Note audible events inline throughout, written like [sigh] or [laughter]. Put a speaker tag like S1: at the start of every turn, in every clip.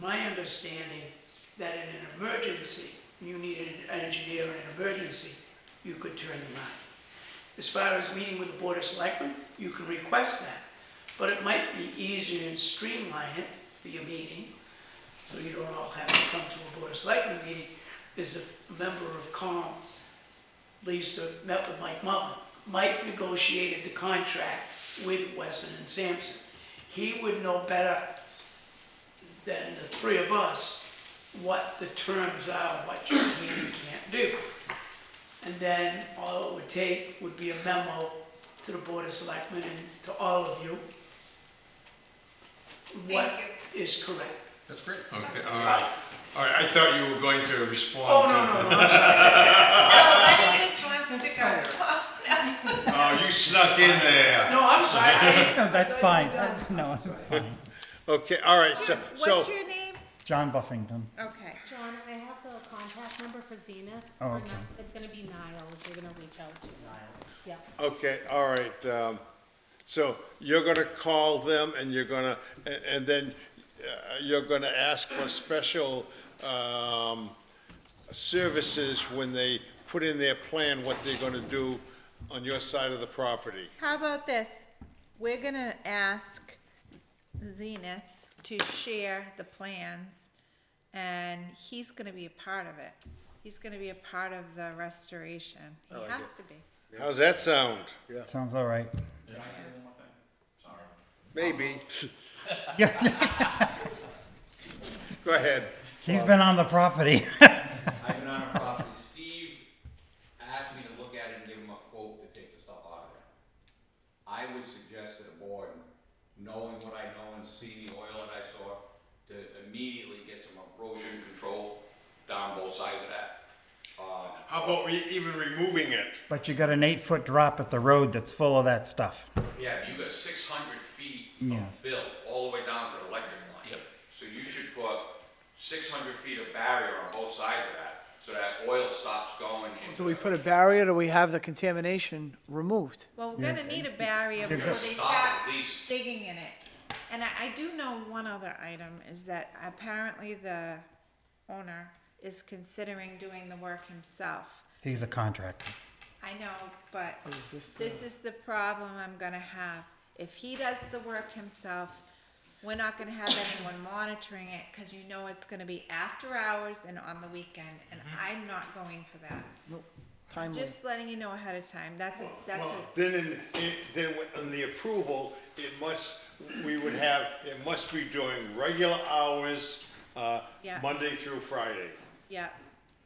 S1: My understanding that in an emergency, you needed an engineer in an emergency, you could turn them out. As far as meeting with the Board of Selectmen, you can request that, but it might be easier and streamline it for your meeting, so you don't all have to come to a Board of Selectmen meeting, is if a member of COM, Lisa, met with Mike Mullin. Mike negotiated the contract with Wesson and Sampson. He would know better than the three of us what the terms are, what you can and can't do. And then all it would take would be a memo to the Board of Selectmen and to all of you. What
S2: Thank
S1: is correct.
S3: That's great.
S4: Okay, all right. All right, I thought you were going to
S1: Oh,
S4: respond to.
S1: no, no, no, I'm sorry.
S2: Oh, Lenny just wants to go.
S4: Oh, you snuck in there.
S1: No, I'm sorry. I didn't-
S5: No, that's fine. [laughs] That's- No, that's fine.
S4: Okay, all right, so, so,
S2: What's your name?
S5: John Buffington.
S2: Okay.
S6: John, I have the contact number for Zenith.
S5: Oh,
S6: Or
S5: okay.
S6: not- It's gonna be Niles, they're gonna reach out to you. Niles. Yep,
S4: okay, all right, um, so you're gonna call them and you're gonna, a- and then uh, you're gonna ask for special, um, services when they put in their plan what they're gonna do on your side of the property.
S2: How about this? We're gonna ask Zenith to share the plans, and he's gonna be a part of it. He's gonna be a part of the restoration. He has to be.
S4: How's that sound?
S5: Sounds all right.
S4: Maybe. [laughs] Go ahead.
S5: He's been on the property. [laughs]
S7: I've been on a property, Steve asked me to look at it and give him a quote to take the stuff out of there. I would suggest to the board, knowing what I know and seeing the oil that I saw, to immediately get some erosion control down both sides of that. Uh,
S4: How about re- even removing it?
S5: But you got an eight foot drop at the road that's full of that stuff.
S7: Yeah, you got six hundred feet of
S5: Yeah.
S7: fill all the way down to the electric line. Yep. So you should put six hundred feet of barrier on both sides of that, so that oil stops going into.
S8: Do we put a barrier, do we have the contamination removed?
S2: Well, we're gonna need a barrier before they
S7: Stop
S2: start
S7: at least.
S2: digging in it. And I, I do know one other item, is that apparently the owner is considering doing the work himself.
S5: He's a contractor.
S2: I know, but
S8: is this the-
S2: this is the problem I'm gonna have. If he does the work himself, we're not gonna have anyone monitoring it, cause you know it's gonna be after hours and on the weekend, and I'm not going for that.
S8: Mm-hmm. Timely.
S2: Just letting you know ahead of time, that's a, that's a,
S4: Then in, it- then on the approval, it must, we would have, it must be during regular hours, uh,
S2: Yeah.
S4: Monday through Friday.
S2: yeah,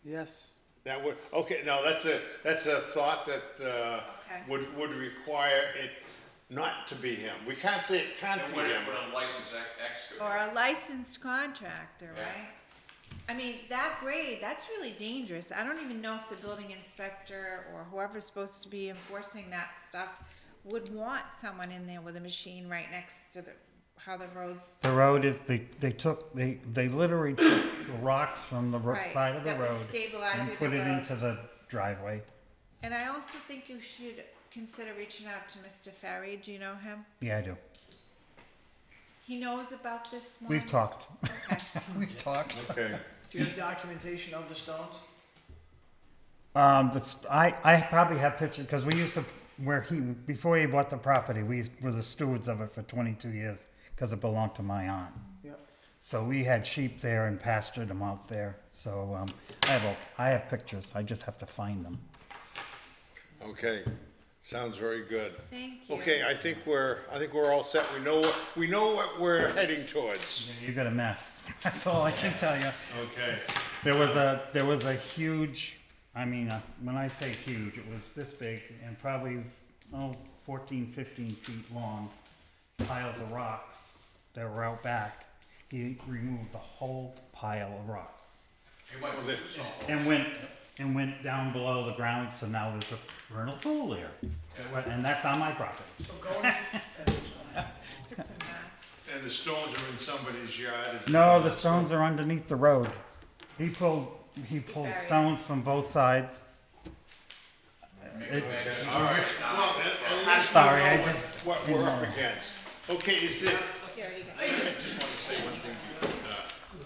S8: Yes.
S4: That would, okay, now that's a, that's a thought that, uh,
S2: Okay.
S4: would, would require it not to be him. We can't say it can't
S7: And
S4: be
S7: when
S4: him.
S7: it, when a licensed ex- excavator.
S2: or a licensed contractor,
S7: Yeah.
S2: right? I mean, that grade, that's really dangerous. I don't even know if the building inspector or whoever's supposed to be enforcing that stuff would want someone in there with a machine right next to the, how the roads.
S5: The road is, they, they took, they, they literally took the rocks from the ro-
S2: Right,
S5: side of the
S2: that was
S5: road
S2: stabilizing the
S5: and put it
S2: road.
S5: into the driveway.
S2: And I also think you should consider reaching out to Mr. Ferry. Do you know him?
S5: Yeah, I do.
S2: He knows about this one.
S5: We've talked.
S2: Okay.
S5: [laughs] We've talked.
S4: Okay.
S8: Do you have documentation of the stones?
S5: Um, that's, I, I probably have pictures, because we used to, where he, before he bought the property, we were the stewards of it for twenty-two years, because it belonged to my aunt.
S8: Yep.
S5: So we had sheep there and pastured them out there. So um, I have all, I have pictures. I just have to find them.
S4: Okay, sounds very good.
S2: Thank you.
S4: Okay, I think we're, I think we're all set. We know, what we know what we're heading towards.
S5: You got a mess. [laughs] That's all I can tell you.
S4: Okay.
S5: There was a there was a huge. I mean, uh, when I say huge, it was this big and probably oh 14, 15 feet long piles of rocks that were out back. He removed the whole pile of rocks.
S7: You might want to do something.
S5: and went and went down below the ground. So now there's a vernal pool there, and that's on my property.
S2: It's a mess.
S4: And the stones are in somebody's yard. is-
S5: No, the stones are underneath the road. He pulled he pulled
S2: buried it.
S5: stones from both sides. It's-
S4: All right. Well, at- at least we
S5: Sorry,
S4: know
S5: I
S4: what-
S5: just
S4: What
S5: didn't
S4: we're up
S5: know.
S4: against. Okay, is there, Uh,